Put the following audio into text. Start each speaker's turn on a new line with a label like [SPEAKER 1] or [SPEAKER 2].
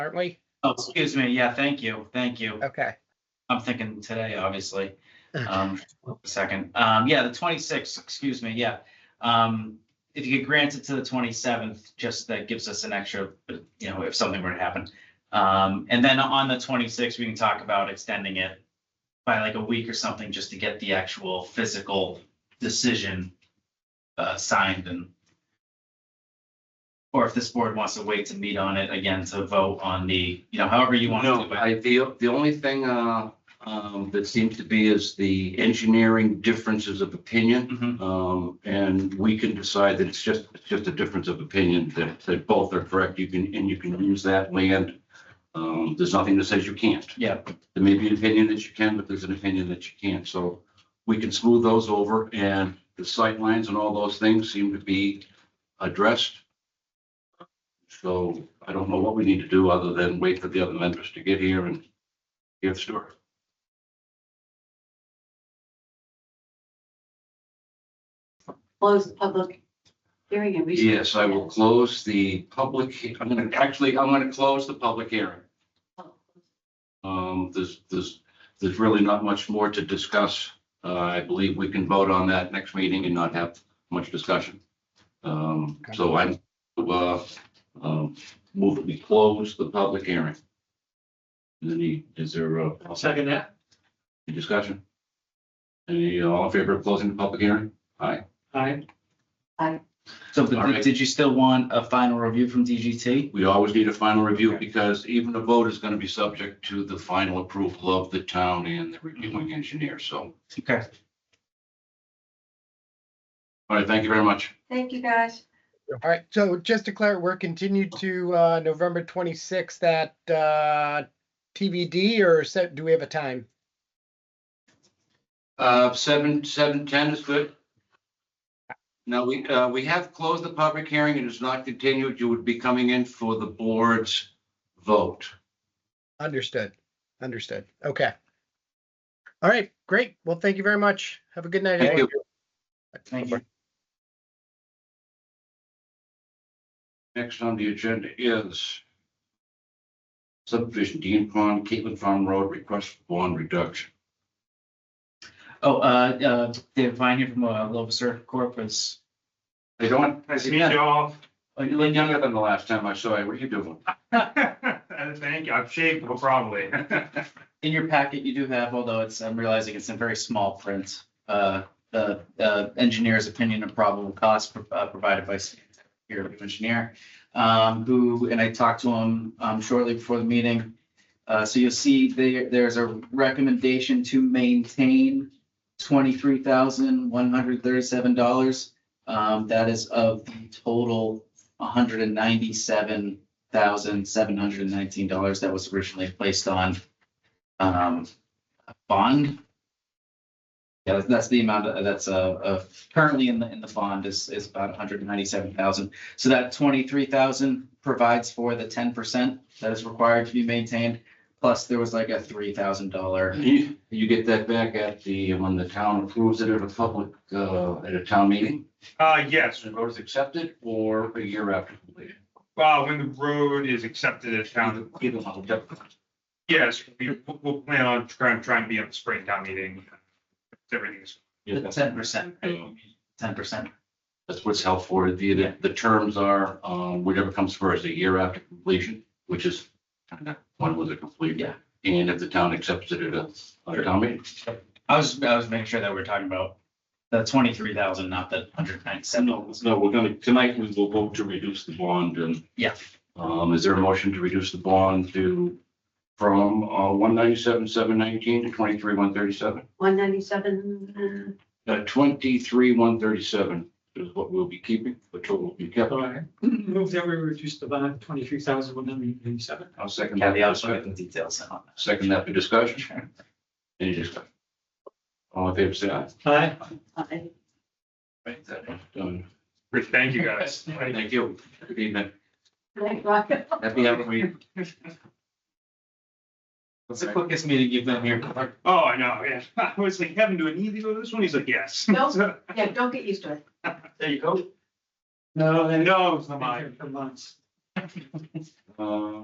[SPEAKER 1] aren't we?
[SPEAKER 2] Oh, excuse me. Yeah, thank you. Thank you.
[SPEAKER 1] Okay.
[SPEAKER 2] I'm thinking today, obviously. Um, a second. Um, yeah, the 26th, excuse me. Yeah. Um, if you could grant it to the 27th, just that gives us an extra, you know, if something were to happen. Um, and then on the 26th, we can talk about extending it by like a week or something, just to get the actual physical decision uh, signed and or if this board wants to wait to meet on it again to vote on the, you know, however you want to do
[SPEAKER 3] No,
[SPEAKER 2] it.
[SPEAKER 3] I, the, the only thing, uh, um, that seems to be is the engineering differences of opinion.
[SPEAKER 2] Mhm.
[SPEAKER 3] Um, and we can decide that it's just, it's just a difference of opinion, that, that both are correct. You can, and you can use that land. Um, there's nothing that says you can't.
[SPEAKER 2] Yeah.
[SPEAKER 3] There may be an opinion that you can, but there's an opinion that you can't. So we can smooth those over and the sight lines and all those things seem to be addressed. So I don't know what we need to do other than wait for the other members to get here and hear the story.
[SPEAKER 4] close the public hearing and. research.
[SPEAKER 3] Yes, I will close the public, he- I'm gonna, actually, I'm gonna close the public hearing. Um, there's, there's, there's really not much more to discuss. Uh, I believe we can vote on that next meeting and not have much discussion. Um, so I'm, uh, um, move, that we close the public hearing. Is any, is there a? Second that. Any discussion? Any, all in favor of closing the public hearing? Aye.
[SPEAKER 2] So but
[SPEAKER 3] All
[SPEAKER 2] did-
[SPEAKER 3] right.
[SPEAKER 2] did you still want a final review from DGT?
[SPEAKER 3] We always need a final review
[SPEAKER 2] Okay.
[SPEAKER 3] because even a vote is gonna be subject to the final approval of the town and the reviewing engineer, so.
[SPEAKER 2] Okay.
[SPEAKER 3] All right, thank you very much.
[SPEAKER 4] Thank you, guys.
[SPEAKER 1] All right. So just to clarify, we're continued to uh, November 26th at uh, TBD or set, do we have a time?
[SPEAKER 3] Uh, seven, seven, ten is good. Now, we, uh, we have closed the public hearing and it's not continued. You would be coming in for the board's vote.
[SPEAKER 1] Understood. Understood. Okay. All right. Great. Well, thank you very much. Have a good night.
[SPEAKER 3] Thank you.
[SPEAKER 1] everyone.
[SPEAKER 2] Thank you.
[SPEAKER 3] Next on the agenda is subdivision Dean Pond, Caitlin Farm Road, request for bond reduction.
[SPEAKER 2] Oh, uh, uh, David Vine here from uh, Loviser Corp was,
[SPEAKER 3] They don't.
[SPEAKER 5] Nice to meet you all.
[SPEAKER 2] oh,
[SPEAKER 3] You
[SPEAKER 2] you
[SPEAKER 3] look
[SPEAKER 2] like,
[SPEAKER 3] younger than the last time I saw you. What are you doing?
[SPEAKER 5] Thank you. I've shaved, but probably.
[SPEAKER 2] in your packet, you do have, although it's, I'm realizing it's in very small print, uh, the, the engineer's opinion of probable cost pro- uh, provided by Stan, your review engineer, um, who, and I talked to him, um, shortly before the meeting. Uh, so you'll see there, there's a recommendation to maintain twenty-three thousand, one hundred thirty-seven dollars. Um, that is of the total hundred and ninety-seven thousand, seven hundred and nineteen dollars that was originally placed on um, bond. Yeah, that's- that's the amount of- that's, uh, uh, currently in the, in the bond is, is about hundred and ninety-seven thousand. So that twenty-three thousand provides for the ten percent that is required to be maintained. Plus, there was like a three thousand dollar,
[SPEAKER 3] You, you get that back at the, when the town approves it at a public, uh, at a town meeting?
[SPEAKER 5] Uh, yes,
[SPEAKER 3] The road is accepted or a year after completion?
[SPEAKER 5] well, Uh, when the road is accepted as town,
[SPEAKER 3] Either one. Yep.
[SPEAKER 5] yes, we, we'll plan on trying, trying to be on the spring town meeting. If Everything is,
[SPEAKER 2] ten percent, ten percent.
[SPEAKER 3] That's what's held for. The, the, the terms are, um, whatever comes first, a year after completion, which is kind of when was it completed?
[SPEAKER 2] Yeah.
[SPEAKER 3] And if the town accepts it at a, at a town meeting.
[SPEAKER 2] I was, I was making sure that we were talking about the twenty-three thousand, not the hundred ninety-seven.
[SPEAKER 3] no, we're gonna, tonight we will vote to reduce the bond and.
[SPEAKER 2] Yeah.
[SPEAKER 3] Um, is there a motion to reduce the bond to, from, uh, one ninety-seven, seven nineteen to twenty-three, one thirty-seven?
[SPEAKER 4] One ninety-seven,
[SPEAKER 3] Uh, twenty-three, one thirty-seven is what we'll be keeping, the total will be kept.
[SPEAKER 6] All right, move that we reduce the bond twenty-three thousand one hundred and eighty-seven.
[SPEAKER 3] I'll second that.
[SPEAKER 2] Caveats with the details on
[SPEAKER 3] Second that for discussion,
[SPEAKER 2] that.
[SPEAKER 3] any discussion? All in favor, say aye.
[SPEAKER 6] Aye.
[SPEAKER 4] uh,
[SPEAKER 3] Right, that is done.
[SPEAKER 5] great, thank you guys.
[SPEAKER 3] Thank you. Good evening.
[SPEAKER 4] right, Rocket?
[SPEAKER 3] Happy Halloween.
[SPEAKER 2] What's the quickest meeting you've been here for?
[SPEAKER 5] Oh, I know, yeah. I was like, Kevin, do I need to go to this one? He's like, yes.
[SPEAKER 4] Nope. Yeah, don't get used to it.
[SPEAKER 2] There you go.
[SPEAKER 6] No,
[SPEAKER 5] No, it's not
[SPEAKER 6] Been
[SPEAKER 5] mine.
[SPEAKER 6] here for months.
[SPEAKER 3] Uh,